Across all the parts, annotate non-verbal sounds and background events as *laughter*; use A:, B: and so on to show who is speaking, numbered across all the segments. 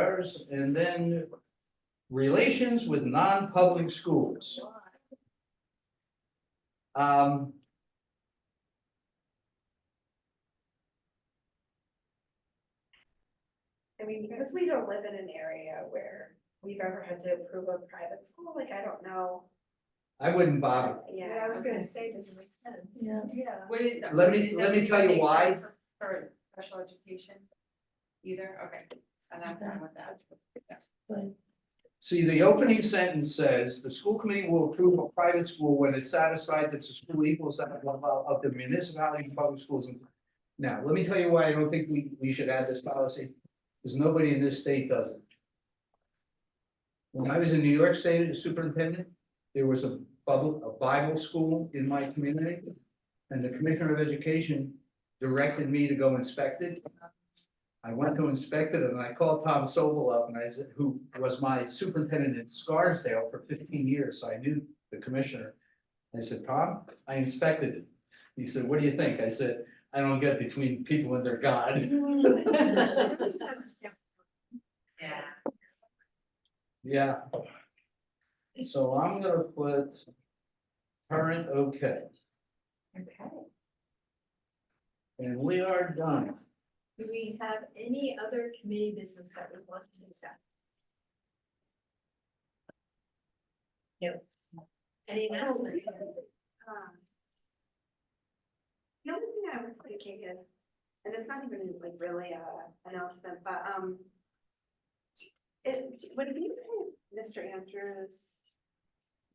A: Ours, and then relations with non-public schools. Um.
B: I mean, because we don't live in an area where we've ever had to approve a private school, like, I don't know,
A: I wouldn't bother.
B: yeah.
C: Yeah, I was gonna
B: okay.
C: say, does it make sense?
D: Yeah.
E: *laughs*
C: Yeah.
E: Would it?
A: Let
E: would
A: me-
E: it
A: let me tell you
E: necessarily be For for special education? Either, okay, and I'm fine with that.
A: See, the opening sentence says, the school committee will approve a private school when it's satisfied that the school equals that level of the municipality and public schools. in- Now, let me tell you why I don't think we, we should add this policy, because nobody in this state does it. When I was in New York State as superintendent, there was a bubble, a Bible school in my community. And the commissioner of education directed me to go inspect it. I went to inspect it and I called Tom Sobel up and I said, who was my superintendent in Scarsdale for fifteen years, so I knew the commissioner. I said, Tom, I inspected it. He said, what do you think? I said, I don't get between people and their God. *laughs*
E: Yeah.
A: Yeah. So I'm gonna put. Current, okay,
C: Okay.
A: and we are done.
C: Do we have any other committee business that we want to discuss? No. Any announcement?
B: Um, The only thing I was thinking is, and it's not even like really a announcement, but, um. It, would it be, okay if Mr. Andrews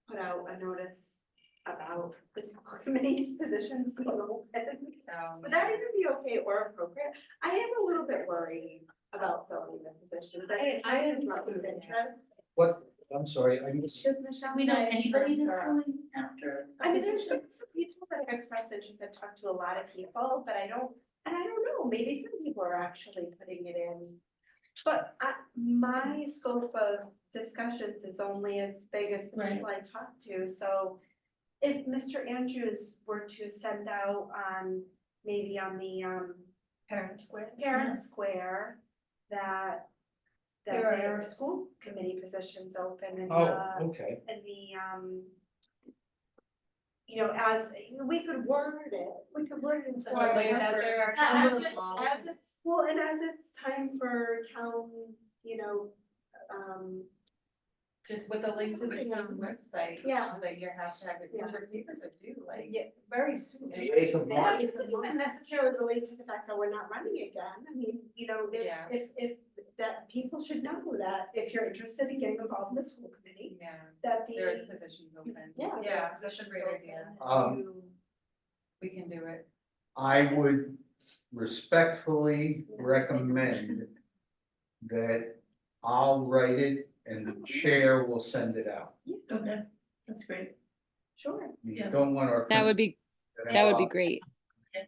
B: put out a notice about the school *laughs* committee positions going open?
E: So.
B: Would that even be okay or appropriate? I am a little bit worried about filling the positions.
C: I- I am
B: have a lot of
C: too.
B: interest.
A: What, I'm sorry, I missed,
B: Because Michelle
D: We know
B: and I
D: anybody that's
B: are-
D: going after.
B: I mean, there's some some people that have expressed interest, I've talked to a lot of people, but I don't, and I don't know, maybe some people are actually putting it in. But I, my scope of discussions is only as big as the
D: Right.
B: people I talk to, so. If Mr. Andrews were to send out on, maybe on the um
C: Parent square?
B: parent square. That that
C: There are-
B: there are school committee positions open in the
A: oh, okay,
B: and the um. You know, as, we could word it, we could word it in such a way that there are.
C: As it-
B: As it's, well, and as it's time for town, you know, um,
E: Just with a link to the town website. um,
B: Yeah.
E: That you have to have it,
B: Yeah.
E: because your papers are due, like.
B: yeah, very soon.
A: the eighth of
B: And that
A: March,
B: doesn't even necessarily relate to the fact that we're not running again, I mean, you know, if,
E: Yeah.
B: if, if, that people should know that if you're interested in getting involved in the school committee,
E: Yeah,
B: that
E: there is
B: the.
E: positions open.
B: Yeah.
E: Yeah, that's a great idea.
A: um.
E: We can do it.
A: I would respectfully recommend that I'll write it and the chair will send it out.
D: Okay, that's great.
B: Sure.
A: You
D: Yeah.
A: don't want our.
F: That would be, that would be great.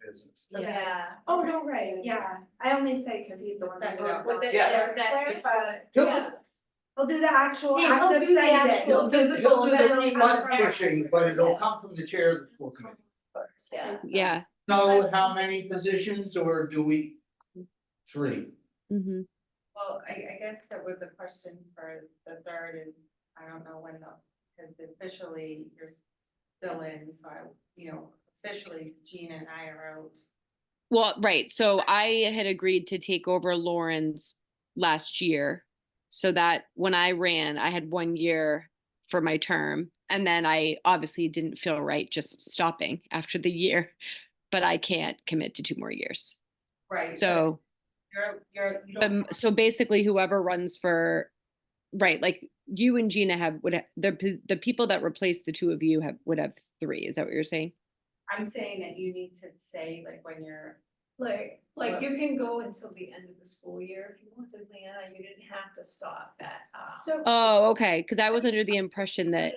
A: Business.
C: Yeah.
B: Oh, no, right, yeah, I only say because he's the one that.
E: Send it out.
C: With the-
A: Yeah.
C: yeah, that-
B: Clarify.
A: He'll,
B: We'll do the actual.
C: Yeah,
B: act
C: I'll
B: of
C: do the
B: sending.
C: actual-
A: he'll do the, he'll do the front pushing, but it'll come from the chair of the school committee.
C: Yeah.
F: Yeah.
A: Know how many positions or do we? Three.
F: hmm
E: Well, I, I guess that was the question for the third is, I don't know when the, because officially you're still in, so I, you know, officially Gina and I are out.
F: Well, right. So I had agreed to take over Lauren's last year. So that when I ran, I had one year for my term. And then I obviously didn't feel right just stopping after the year, *laughs* but I can't commit to two more years.
E: Right.
F: So,
E: You're, you're, you
F: um,
E: don't.
F: so basically whoever runs for, right, like you and Gina have, would, ha- the, p- the people that replace the two of you have, would have three. Is that what you're saying?
E: I'm saying that you need to say like when you're,
C: Like, like you can go until the end of the school year if you wanted, Leanna, you didn't have to stop at, um.
B: So.
F: Oh, okay, because I was under the impression that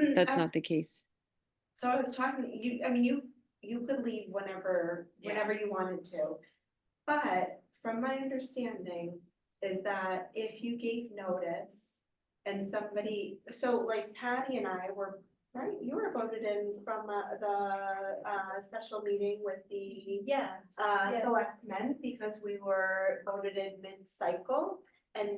B: Mm,
F: that's
B: I-
F: not the case.
B: So I was talking, you, I mean, you, you could leave whenever,
E: Yeah.
B: whenever you wanted to. But from my understanding is that if you gave notice and somebody, so like Patty and I were, right, you were voted in from uh, the uh special meeting with the
C: Yes.
B: uh
C: yes.
B: selectmen because we were voted in mid-cycle and